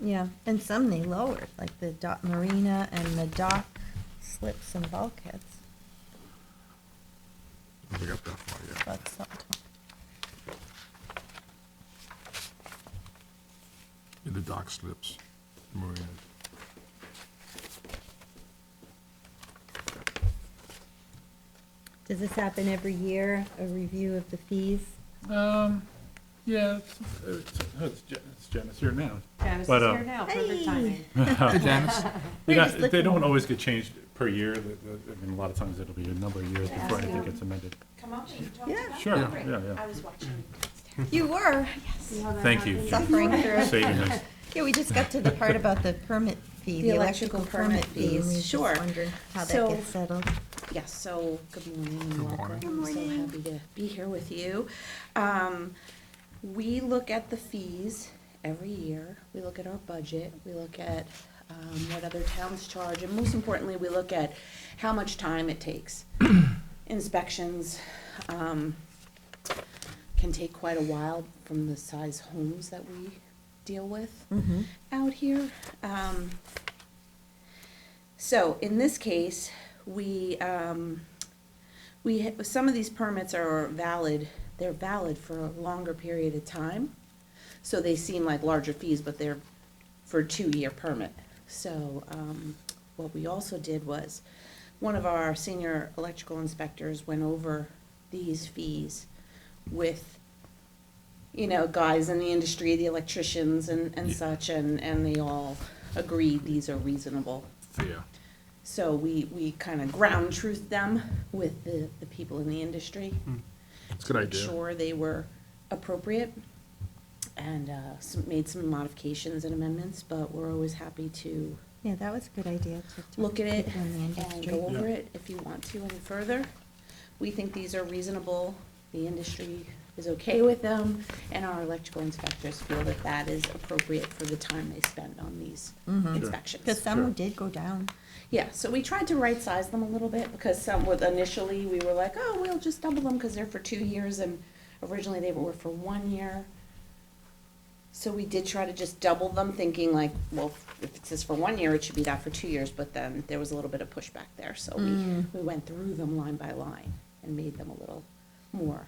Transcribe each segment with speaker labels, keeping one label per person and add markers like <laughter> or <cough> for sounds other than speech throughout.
Speaker 1: Yeah, and some they lowered, like the dock marina and the dock slips and bulkheads.
Speaker 2: We got that far yet.
Speaker 1: That's something.
Speaker 2: In the dock slips. Marina.
Speaker 1: Does this happen every year, a review of the fees?
Speaker 3: Um, yeah, it's, Oh, it's, it's Jen- it's Janice here now.
Speaker 4: Travis is
Speaker 3: But, uh,
Speaker 4: here now, perfect timing.
Speaker 2: Hey, <laughs> Janice.
Speaker 3: They
Speaker 1: We're just
Speaker 3: don't, they
Speaker 1: looking-
Speaker 3: don't always get changed per year, The- the- I mean, a lot of times it'll be a number of years before
Speaker 4: Ask
Speaker 3: anything
Speaker 4: them.
Speaker 3: gets amended.
Speaker 4: Come up and talk
Speaker 1: Yeah.
Speaker 4: about
Speaker 3: Sure,
Speaker 4: it.
Speaker 3: yeah, yeah, yeah.
Speaker 4: I was watching.
Speaker 1: You were
Speaker 3: Thank you.
Speaker 4: <laughs>
Speaker 1: suffering through.
Speaker 3: Saving us.
Speaker 1: Yeah, we just got to the part about the permit fee, the
Speaker 4: The
Speaker 1: electrical
Speaker 4: electrical
Speaker 1: permit
Speaker 4: permit
Speaker 1: fee. and
Speaker 4: fees,
Speaker 1: we were just
Speaker 4: sure.
Speaker 1: Wondering how that
Speaker 4: So-
Speaker 1: gets settled.
Speaker 4: Yes, so, good
Speaker 2: Good
Speaker 4: morning, welcome.
Speaker 2: morning.
Speaker 4: I'm so
Speaker 1: morning.
Speaker 4: happy to be here with you. Um, we look at the fees every year. We look at our budget, we look at, um, what other towns charge, and most importantly, we look at how much time it takes. Inspections, um, can take quite a while from the size homes that we deal with
Speaker 1: Mhm.
Speaker 4: out here. Um, so in this case, we, um, we, ha- some of these permits are valid, they're valid for a longer period of time. So they seem like larger fees, but they're for a two-year permit. So, um, what we also did was, one of our senior electrical inspectors went over these fees with you know, guys in the industry, the electricians and, and such, and, and they all agreed these are reasonable.
Speaker 2: Yeah.
Speaker 4: So we, we kind of ground truth them with the, the people in the industry.
Speaker 2: It's a good
Speaker 4: Hmm. Make
Speaker 2: idea.
Speaker 4: sure they were appropriate and, uh, some- made some modifications and amendments, but we're always happy to
Speaker 1: Yeah, that was a good idea. to talk
Speaker 4: look at
Speaker 1: to
Speaker 4: it
Speaker 1: people in the
Speaker 4: and
Speaker 1: industry.
Speaker 4: go over it if you want to any further. We think these are reasonable, the industry is okay with them, and our electrical inspectors feel that that is appropriate for the time they spend on these
Speaker 1: Mhm. Because
Speaker 4: inspections.
Speaker 1: some
Speaker 3: Sure.
Speaker 1: did go down.
Speaker 4: Yeah, so we tried to right-size them a little bit, because some with, initially, we were like, oh, we'll just double them, because they're for two years, and originally they were for one year. So we did try to just double them, thinking like, well, if it says for one year, it should be that for two years, but then there was a little bit of pushback there, so we,
Speaker 1: Mm.
Speaker 4: we went through them line by line and made them a little more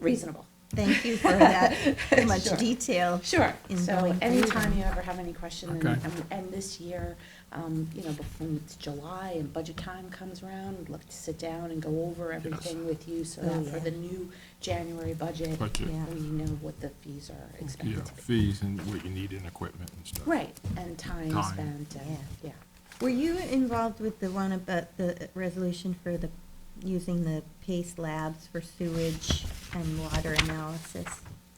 Speaker 4: reasonable.
Speaker 1: Thank you for that
Speaker 4: <laughs>
Speaker 1: much
Speaker 4: Sure.
Speaker 1: detail.
Speaker 4: Sure,
Speaker 1: In
Speaker 4: so
Speaker 1: going through
Speaker 4: anytime
Speaker 1: them.
Speaker 4: you ever have any question, and,
Speaker 2: Okay.
Speaker 4: and- and this year, um, you know, before it's July and budget time comes around, we'd love to sit down and go over everything with you, so
Speaker 1: Oh,
Speaker 4: that for
Speaker 1: yeah.
Speaker 4: the new January budget,
Speaker 2: Budget.
Speaker 1: Yeah.
Speaker 4: we know what the fees are
Speaker 2: Yeah,
Speaker 4: expected to be.
Speaker 2: fees and what you need in equipment and stuff.
Speaker 4: Right, and time
Speaker 2: Time.
Speaker 4: spent, and, yeah.
Speaker 1: Were you involved with the one about the resolution for the, using the Pace Labs for sewage and water analysis?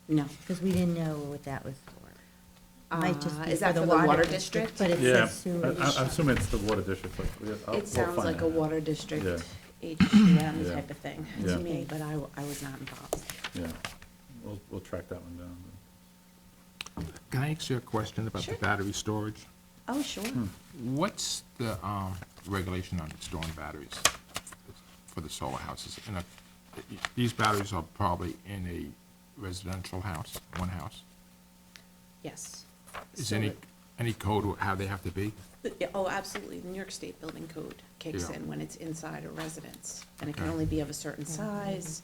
Speaker 4: No.
Speaker 1: Because we didn't know what that was for. Might just
Speaker 4: Uh,
Speaker 1: be
Speaker 4: is that
Speaker 1: for the water district, but it
Speaker 3: Yeah,
Speaker 1: says
Speaker 3: I,
Speaker 1: sewage.
Speaker 3: I- I assume it's the water district, like, we- I'll- Oh, we'll
Speaker 4: It sounds
Speaker 3: find
Speaker 4: like a
Speaker 3: out.
Speaker 4: water district,
Speaker 3: Yeah.
Speaker 4: HDM
Speaker 3: Yeah.
Speaker 4: type of thing
Speaker 3: Yeah.
Speaker 4: to me, but I, w- I was not involved.
Speaker 3: Yeah, we'll, we'll track that one down.
Speaker 2: Can I ask you a question about the
Speaker 4: Sure.
Speaker 2: battery storage?
Speaker 4: Oh, sure.
Speaker 3: Hmm.
Speaker 2: What's the, um, regulation on storing batteries for the solar houses? And, uh, these batteries are probably in a residential house, one house.
Speaker 4: Yes.
Speaker 2: Is
Speaker 4: So
Speaker 2: any,
Speaker 4: it-
Speaker 2: any code how they have to be?
Speaker 4: Yeah, Oh, absolutely. The New York State Building Code kicks
Speaker 2: Yeah.
Speaker 4: in when it's inside a residence. And it can
Speaker 2: Okay. Mm.
Speaker 4: only be of a certain size.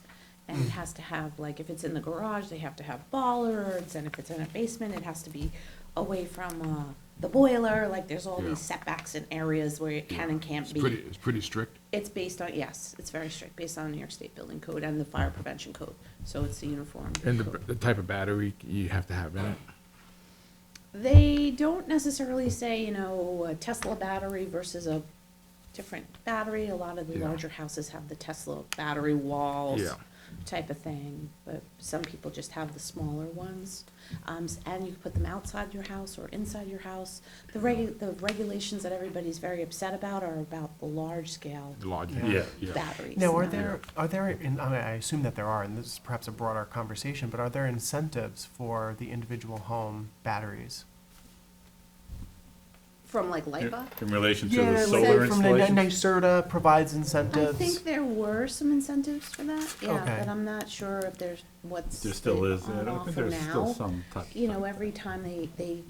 Speaker 4: And it has to have, like, if it's in the garage, they have to have bollards. And if it's in a basement, it has to be away from uh, the boiler. Like, there's all
Speaker 2: Yeah.
Speaker 4: these setbacks and areas where it can and can't
Speaker 2: It's pretty,
Speaker 4: be.
Speaker 2: it's pretty strict.
Speaker 4: It's based on, yes, it's very strict, based on the New York State Building Code and the Fire Prevention Code. So it's the uniform.
Speaker 2: And the,
Speaker 4: code.
Speaker 2: the type of battery you have to have in it?
Speaker 4: They don't necessarily say, you know, a Tesla battery versus a different battery. A lot of the
Speaker 2: Yeah.
Speaker 4: larger houses have the Tesla battery walls
Speaker 2: Yeah.
Speaker 4: type of thing, but some people just have the smaller ones. Um, s- and you can put them outside your house or inside your house. The regu- the regulations that everybody's very upset about are about the large scale
Speaker 2: The large,
Speaker 5: Yeah.
Speaker 2: yeah, yeah.
Speaker 4: batteries.
Speaker 5: Now, are
Speaker 4: not-
Speaker 5: there, are there, and I mean, I assume that there are, and this is perhaps a broader conversation, but are there incentives for the individual home batteries?
Speaker 4: From like
Speaker 3: In-
Speaker 4: LIPA?
Speaker 3: In relation to the solar
Speaker 5: From Ni- Ni-
Speaker 3: installation?
Speaker 5: NYSERDA provides
Speaker 4: I
Speaker 5: incentives.
Speaker 4: think there were some incentives for that, yeah,
Speaker 5: Okay.
Speaker 4: but I'm not sure if there's what's.
Speaker 3: There still
Speaker 4: been
Speaker 3: is,
Speaker 4: on
Speaker 3: I don't think
Speaker 4: offer
Speaker 3: there's still
Speaker 4: now.
Speaker 3: some type.
Speaker 4: You know, every time they, they